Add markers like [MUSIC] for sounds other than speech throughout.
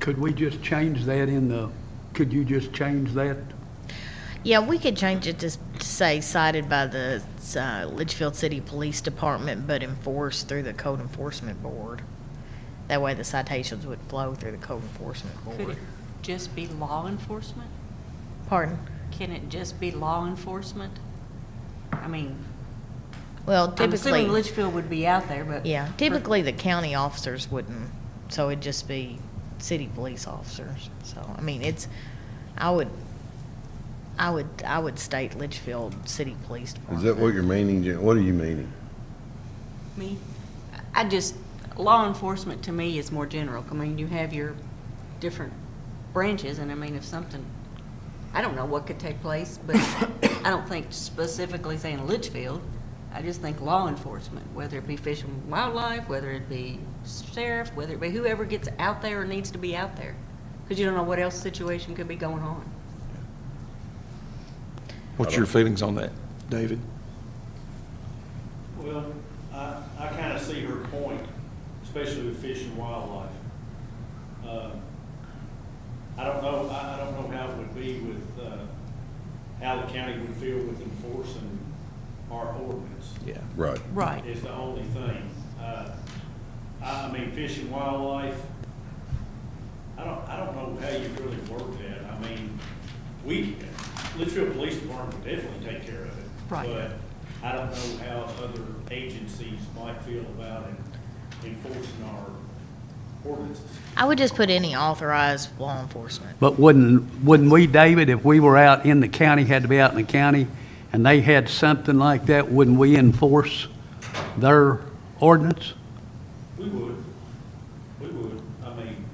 Could we just change that in the, could you just change that? Yeah, we could change it to s- to say cited by the uh, Litchfield City Police Department, but enforced through the Code Enforcement Board. That way the citations would flow through the Code Enforcement Could Board. it just be law enforcement? Pardon? Can it just be law enforcement? I mean, Well, I'm assuming typically, Litchfield would be out there, but. yeah, typically the county officers wouldn't, so it'd just be city police officers. So, I mean, it's, I would, I would, I would state Litchfield City Police Is Department. that what you're meaning, Jan? What are you meaning? Me, I just, law enforcement to me is more general. I mean, you have your different branches, and I mean, if something, I don't know what could take place, [COUGHS] but I don't think specifically saying Litchfield. I just think law enforcement, whether it be Fish and Wildlife, whether it be sheriff, whether it be whoever gets out there or needs to be out there. Because you don't know what else situation could be going on. What's your feelings on that, David? Well, I, I kind of see her point, especially with fish and wildlife. Um, I don't know, I, I don't know how it would be with, uh, how the county would feel with enforcing our ordinance Yeah. Right. Right. is the only thing. Uh, I, I mean, fish and wildlife, I don't, I don't know how you really work that. I mean, we, Litchfield Police Department would definitely take care of it. Right. But I don't know how other agencies might feel about en- enforcing our ordinances. I would just put any authorized law enforcement. But wouldn't, wouldn't we, David, if we were out in the county, had to be out in the county, and they had something like that, wouldn't we enforce their ordinance? We would, we would. I mean,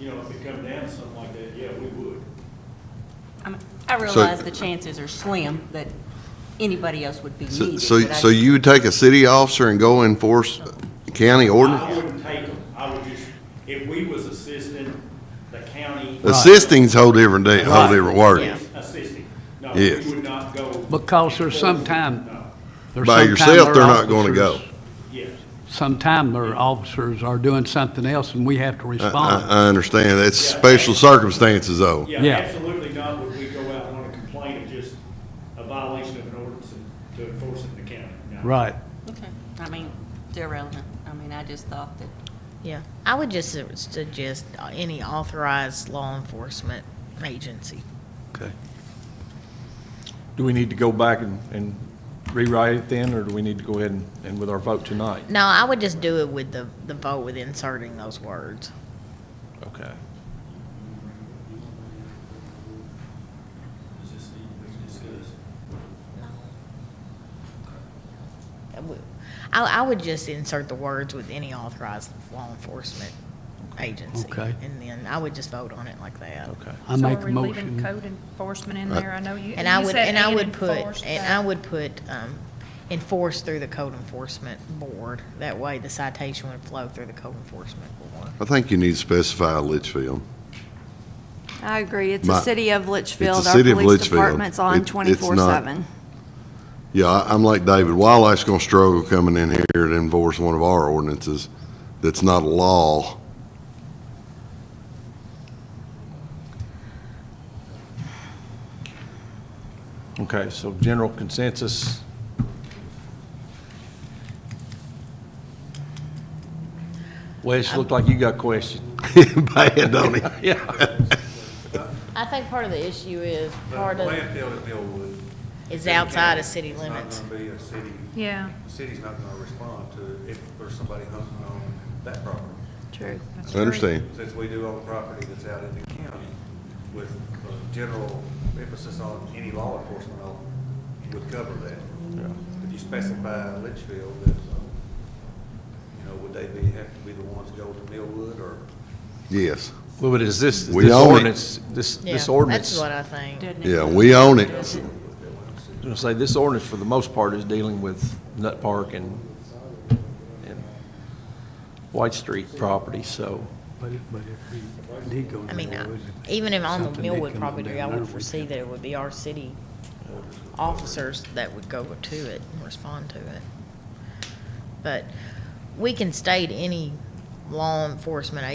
you know, if it come down to something like that, yeah, we would. I mean, I realize the chances are slim that anybody else would be So, needed. so but I so just- you would take a city officer and go enforce county I ordinance? wouldn't take them, I would just, if we was assisting the county. Assisting's a whole different day, whole Right. different word. Assisting, no, Yes. we would not go. Because there's sometime- No, There's By sometime yourself, their they're not gonna go. officers- yes, Sometime their officers are doing something else, and we have to I, I, respond. I understand. That's special circumstances though. Yeah. yeah, absolutely not would we go out on a complaint of just a violation of an ordinance and to enforce it in the county, no. Right. Okay, I mean, it's irrelevant. I mean, I just thought that, Yeah, I would just su- suggest uh, any authorized law enforcement agency. Okay. Do we need to go back and, and rewrite it then, or do we need to go ahead and, and with our vote tonight? No, I would just do it with the, the vote with inserting those words. Okay. Is this the, is this? I, would- I I would just insert the words with any authorized law enforcement agency. Okay. And then I would just vote on it like that. Okay. I So make are a we leaving motion. Code enforcement in Right. there, I know you. And I you would, said and I would enforced, put, and but- I would put, um, enforce through the code enforcement board. That way the citation would flow through the code enforcement board. I think you need to specify Litchfield. I agree. It's the My- city of Litchfield. Our city of police Litchfield. department's It- on it's not- twenty-four seven. Yeah, I, I'm like David. Wildlife's gonna struggle coming in here to enforce one of our ordinances that's not a law. [LAUGHS] Okay, so general consensus, Wes, looked like you got questions. Bad, don't it? [LAUGHS] Yeah. I think part of the issue is But part of. Landfill at Millwood. is outside of city limits. It's not gonna be a city, Yeah, the city's not gonna respond to it if there's somebody hunting on that property. True. that's I true. understand. Since we do own property that's out in the county with a general emphasis on any law enforcement law would cover that. If you specify Litchfield, then, you know, would they be, have to be the ones to go to Millwood or? Yes. Well, but is this, We this own it. ordinance, this, Yeah, this ordinance, That's what I I think. doesn't it? Yeah, we own it. was gonna say, this ordinance for the most part is dealing with Nut Park and, and White Street property, so. But if- but if we did go I mean, uh, I- there, even if on the something did Millwood come up property, I down there, would we foresee could- that it would be our city officers that would go to it and respond to it. But we can state any law enforcement